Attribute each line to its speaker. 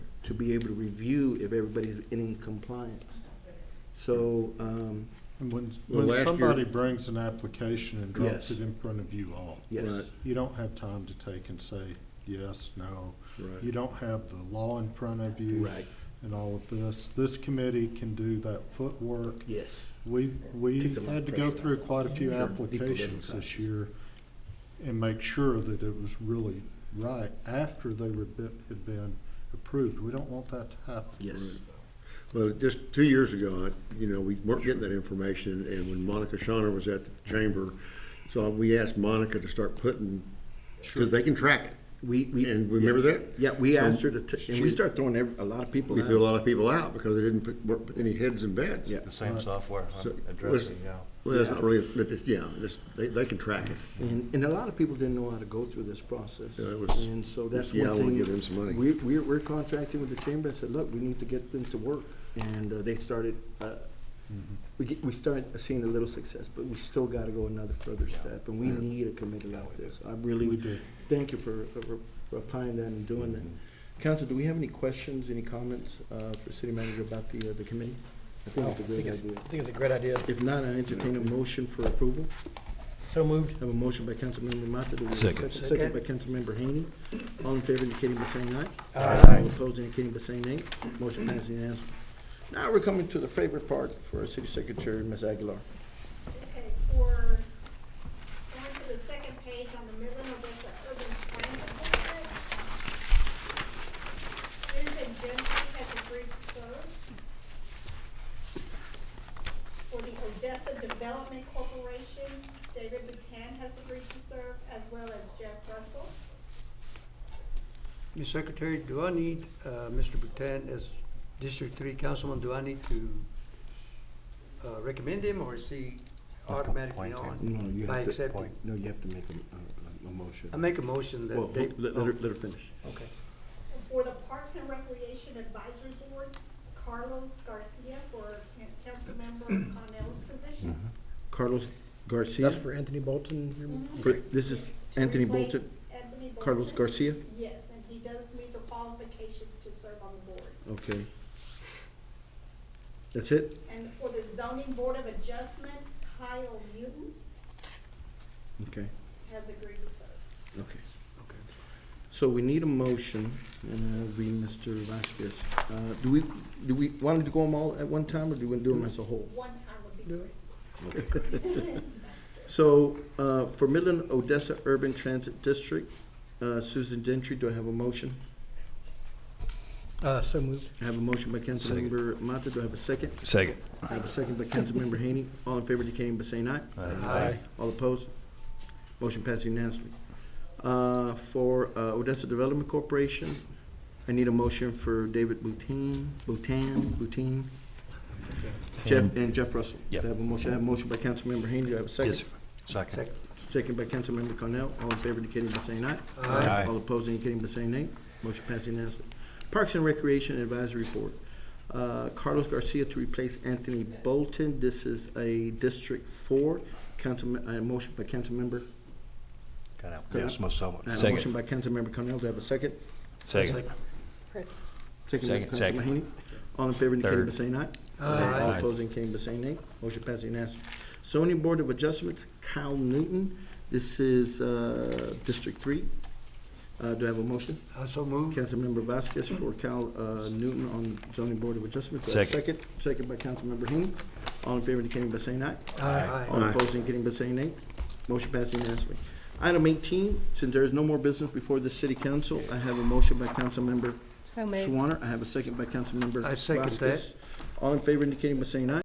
Speaker 1: to be able to review if everybody's in compliance. So, um,
Speaker 2: And when,
Speaker 3: Well,
Speaker 2: when
Speaker 3: last year-
Speaker 2: somebody brings an application and
Speaker 1: Yes.
Speaker 2: drops it in front of you all,
Speaker 1: yes,
Speaker 3: Right.
Speaker 2: you don't have time to take and say yes, no. You
Speaker 3: Right.
Speaker 2: don't have the law in front of you
Speaker 1: right,
Speaker 2: and all of this. This committee can do that footwork.
Speaker 1: yes,
Speaker 2: We, we
Speaker 1: Takes a lot of
Speaker 2: had to go
Speaker 1: pressure
Speaker 2: through
Speaker 1: off.
Speaker 2: quite a few
Speaker 1: Sure.
Speaker 2: applications
Speaker 1: People
Speaker 2: this
Speaker 1: didn't
Speaker 2: year and make sure that it was really right after they were, be- had been approved. We don't want that to happen.
Speaker 1: yes.
Speaker 3: Well, just two years ago, I- you know, we weren't getting that information, and when Monica Shawner was at the chamber, so we asked Monica to start putting,
Speaker 2: Sure.
Speaker 3: because they can track it.
Speaker 1: We, we.
Speaker 3: And remember
Speaker 1: yeah,
Speaker 3: that?
Speaker 1: Yeah, we
Speaker 3: So
Speaker 1: asked her to, t- and we
Speaker 3: she-
Speaker 1: start throwing every- a lot of people
Speaker 3: We threw a
Speaker 1: out.
Speaker 3: lot of people out because they didn't put, weren't put any heads in beds.
Speaker 1: Yeah.
Speaker 4: The same software
Speaker 3: So,
Speaker 4: I'm
Speaker 3: was-
Speaker 4: addressing, yeah.
Speaker 3: Well, that's not really, but it's, yeah, it's, they, they can track it.
Speaker 1: And, and a lot of people didn't know how to go through this process.
Speaker 3: Yeah, it was-
Speaker 1: And so that's
Speaker 3: Yeah, I
Speaker 1: one
Speaker 3: wanna
Speaker 1: thing.
Speaker 3: give them some money.
Speaker 1: We, we're, we're contracting with the chamber, I said, look, we need to get them to work, and uh, they started, uh, we get, we start seeing a little success, but we still gotta go another further step, and we need a committee like this. I
Speaker 2: We
Speaker 1: really,
Speaker 2: do.
Speaker 1: thank you for, for for applying that and doing that. Mm-hmm. Council, do we have any questions, any comments, uh, for city manager about the, uh, the committee? I think it's a great idea.
Speaker 5: I think it's a great idea.
Speaker 1: If not, I entertain a motion for approval.
Speaker 5: So moved.
Speaker 1: Have a motion by Councilmember Mata. do we have a Second. Second by Councilmber Haney. All in favor indicating by saying aye.
Speaker 5: Aye.
Speaker 1: All opposed indicating by saying nay. Motion passes unanimously. Now we're coming to the favorite part for our city secretary, Ms. Aguilar.
Speaker 6: Okay, for, going to the second page on the Midland Odessa Urban Transit District. Susan Gentry has agreed to serve. For the Odessa Development Corporation, David Batan has agreed to serve, as well as Jeff Russell.
Speaker 7: Ms. Secretary, do I need, uh, Mr. Boutan as District Three Councilman, do I need to uh, recommend him or is he automatically
Speaker 4: Appoint him.
Speaker 7: on?
Speaker 1: No, you
Speaker 7: By
Speaker 1: have to,
Speaker 7: accepting.
Speaker 1: no, you have to make a, a, a motion.
Speaker 7: I make a motion
Speaker 1: Well,
Speaker 7: that they.
Speaker 1: let, let her, let her finish.
Speaker 7: oh, Okay.
Speaker 6: And For the Parks and Recreation Advisory Board, Carlos Garcia for council member Connell's position.
Speaker 1: Carlos Garcia.
Speaker 5: That's for Anthony Bolton.
Speaker 1: For- This is
Speaker 6: To
Speaker 1: Anthony
Speaker 6: replace
Speaker 1: Bolton,
Speaker 6: Anthony
Speaker 1: Carlos
Speaker 6: Bolton.
Speaker 1: Garcia.
Speaker 6: Yes, and he does meet the qualifications to serve on the board.
Speaker 1: Okay. That's it?
Speaker 6: And for the zoning board of adjustment, Kyle Newton
Speaker 1: Okay.
Speaker 6: has agreed to serve.
Speaker 1: Okay, okay. So we need a motion, and that'll be Mr. Vasquez. Uh, Do we, do we want to go them all at one time, or do we do them as a whole?
Speaker 6: One time would be great.
Speaker 1: So uh, for Midland Odessa Urban Transit District, uh, Susan Gentry, do I have a motion?
Speaker 5: Uh, so moved.
Speaker 1: I have a motion by Councilmember Mata, do I have a second?
Speaker 8: Second.
Speaker 1: I have a second by Councilmember Haney. All in favor indicating by saying aye.
Speaker 7: Aye.
Speaker 1: All opposed? Motion passed unanimously. Uh, For uh, Odessa Development Corporation, I need a motion for David Boutin, Boutin, Boutin, Jeff, and Jeff Russell. Do I
Speaker 8: Yep.
Speaker 1: have a motion, I have a motion by Councilmember Haney, do I have a second?
Speaker 8: Yes, sir.
Speaker 4: Second.
Speaker 7: Second.
Speaker 1: Second by Councilmember Cornell, all in favor indicating by saying aye.
Speaker 4: Aye.
Speaker 1: All opposed indicating by saying nay. Motion passed unanimously. Parks and Recreation Advisory Board, uh, Carlos Garcia to replace Anthony Bolton. This is a District Four. Council, uh, motion by Councilmember
Speaker 4: Got out. Yes, most so much.
Speaker 1: I have a
Speaker 8: Second.
Speaker 1: motion by Councilmember Cornell, do I have a second?
Speaker 8: Second.
Speaker 1: Second by
Speaker 8: Second,
Speaker 1: Councilmember
Speaker 8: second.
Speaker 1: Haney. All in favor indicating by
Speaker 8: Third.
Speaker 1: saying aye.
Speaker 7: Aye.
Speaker 1: All opposing indicating by saying nay. Motion passes unanimously. Zoning Board of Adjustments, Kyle Newton. This is uh, District Three. Uh, Do I have a motion?
Speaker 7: I so moved.
Speaker 1: Councilmember Vasquez for Cal uh, Newton on Zoning Board of Adjustments. Do I have a
Speaker 8: Second.
Speaker 1: Second by Councilmember Haney. All in favor indicating by saying aye.
Speaker 7: Aye.
Speaker 1: All
Speaker 3: Aye.
Speaker 1: opposed, indicating by saying nay. Motion passed unanimously. Item eighteen, since there is no more business before the city council, I have a motion by Councilmember
Speaker 9: So moved.
Speaker 1: Swanner. I have a second by Councilmember
Speaker 7: I second that.
Speaker 1: Vasquez. All in favor indicating by saying aye.